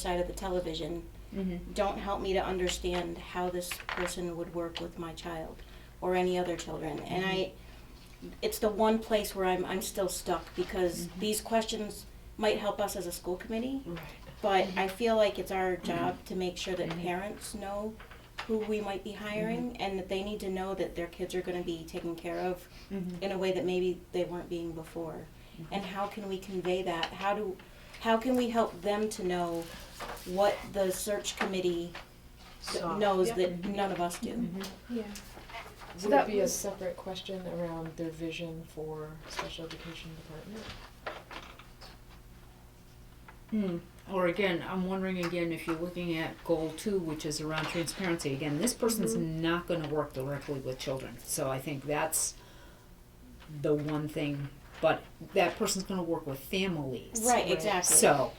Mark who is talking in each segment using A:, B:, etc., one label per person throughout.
A: side of the television don't help me to understand how this person would work with my child or any other children. And I, it's the one place where I'm, I'm still stuck because these questions might help us as a school committee, but I feel like it's our job to make sure that parents know who we might be hiring and that they need to know that their kids are going to be taken care of in a way that maybe they weren't being before. And how can we convey that? How do, how can we help them to know what the search committee th-
B: Saw.
A: knows
C: Yep.
A: that none of us do.
C: Yeah. So
B: Would it
C: that
B: be a
C: was-
B: separate question around their vision for special education department?
D: Hmm. Or again, I'm wondering again if you're looking at goal two, which is around transparency. Again, this person's
A: Mm-hmm.
D: not going to work directly with children, so I think that's the one thing. But that person's going to work with families,
A: Right, exactly.
D: So,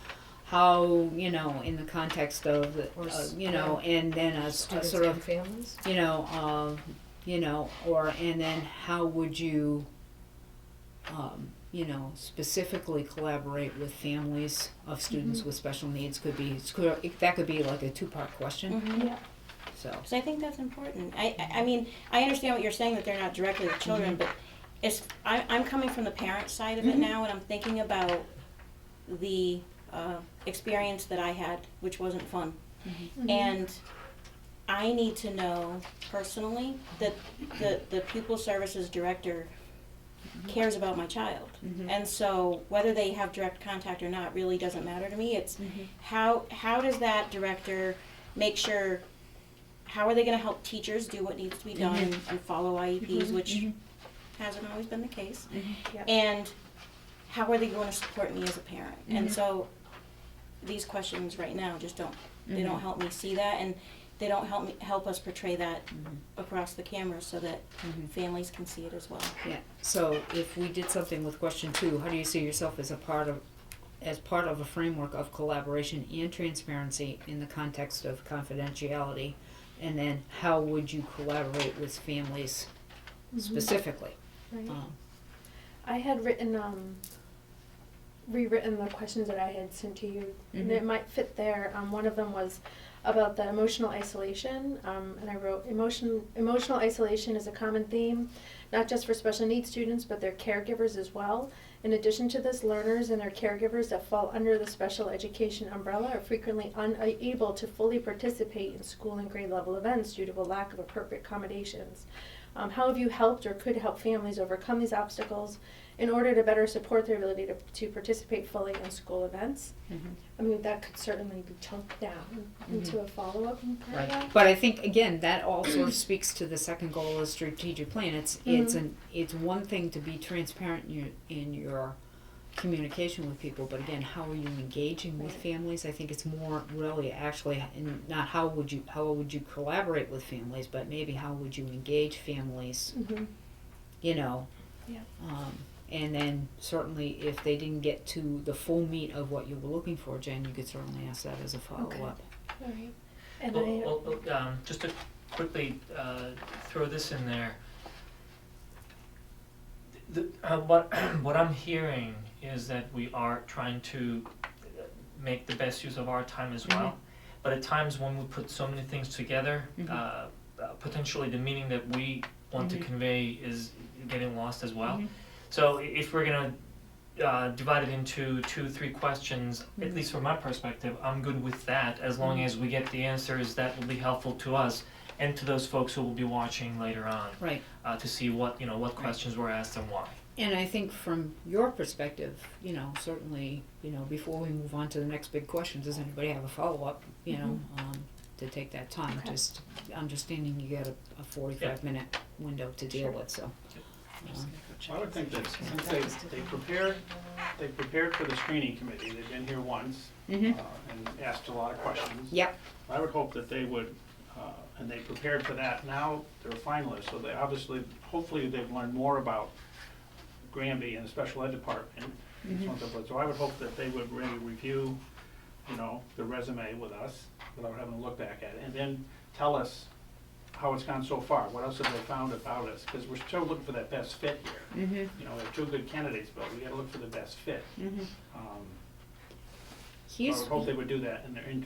D: how you know in the context of the-
B: Or
D: uh,
B: s-
D: you know, and then a, s- a
B: Students
D: sort
B: and
D: of
B: families?
D: you know, uh, you know, or and then how would you, um, you know, specifically collaborate with families of students
A: Mm-hmm.
D: with special needs? Could be it's clear- it- that could be like a two part question.
A: Mhm.
C: Yeah.
D: So
A: So I think that's important. I, I I mean, I understand what you're saying that they're not directly the children, but it's, I, I'm coming from the parent side of it
D: Mhm.
A: now and I'm thinking about the uh, experience that I had, which wasn't fun.
C: Mm-hmm.
A: And I need to know personally that the, the pupil services director cares about my child.
D: Mhm.
A: And so whether they have direct contact or not really doesn't matter to me. It's how how does that director make sure how are they going to help teachers do what needs to be done and follow IEPs, which
D: Mhm.
A: hasn't always been the case?
C: Yep.
A: And how are they going to support me as a parent? And
D: Mhm.
A: so these questions right now just don't they don't
D: Mhm.
A: help me see that and they don't help me help us portray that across the camera so that
D: Mhm.
A: families can see it as well.
D: yeah, so if we did something with question two, how do you see yourself as a part of as part of a framework of collaboration and transparency in the context of confidentiality, and then how would you collaborate with families Mm-hmm. specifically?
C: Mm-hmm. Right.
D: Um,
C: I had written, um, rewritten the questions that I had sent to you, and it
D: Mhm.
C: might fit there. Um, one of them was about the emotional isolation, um, and I wrote, emotion, emotional isolation is a common theme, not just for special needs students, but their caregivers as well. In addition to this, learners and their caregivers that fall under the special education umbrella are frequently unable to fully participate in school and grade level events due to a lack of appropriate accommodations. Um, how have you helped or could help families overcome these obstacles in order to better support their ability to, to participate fully in school events?
D: Mhm.
C: I mean, that could certainly be chunked down into a follow up.
D: Right. But I think again that all sort of speaks to the second goal of strategic plan. It's it's
C: Mhm.
D: an it's one thing to be transparent in your, in your communication with people, but again, how are you engaging with
C: Right.
D: families? I think it's more really actually and not how would you how would you collaborate with families, but maybe how would you engage families,
C: hmm
D: you know?
C: Yeah.
D: Um, and then certainly if they didn't get to the full meat of what you were looking for, Jen, you could certainly ask that as a follow up.
C: All right. And
E: Well,
C: I,
E: well, well, um, just to quickly, uh, throw this in there. The, uh, what, what I'm hearing is that we are trying to uh, make the best use of our time as well.
C: Mm-hmm.
E: But at times when we put so many things together,
D: Mhm.
E: uh, uh, potentially the meaning that we want to
C: Mm-hmm.
D: Mhm.
E: convey is getting lost as well.
D: Mhm.
E: So i- if we're gonna, uh, divide it into two, three questions, at
D: Mhm.
E: least from my perspective, I'm good with that, as long
D: Mhm.
E: as we get the answers that will be helpful to us and to those folks who will be watching later on,
D: Right.
E: uh, to see what, you know, what
D: Right.
E: questions were asked and why.
D: And I think from your perspective, you know, certainly, you know, before we move on to the next big question, does anybody have a follow-up, you know, um, to take that time?
C: Mm-hmm. Okay.
D: Just understanding you got a, a forty-five minute window to deal
C: Sure.
D: with, so. um,
F: I would think that since they, they prepared,
B: Uh,
F: they prepared for the screening committee, they've been here once uh,
D: mhm.
F: and asked a lot of questions.
D: Yep,
F: I would hope that they would, uh, and they prepared for that, now they're finalists, so they obviously, hopefully they've learned more about Granby and the special ed department and so on and so forth. So I would hope that they would really review, you know, the resume with us without having to look back at it, and then tell us how it's gone so far, what else have they found about us, because we're still looking for that best fit here
D: mhm,
C: Mm-hmm.
F: Um, you know, we have two good candidates, but we gotta look for the best fit.
D: mhm.
F: Um,
D: He's,
F: I would hope they would do that in their in-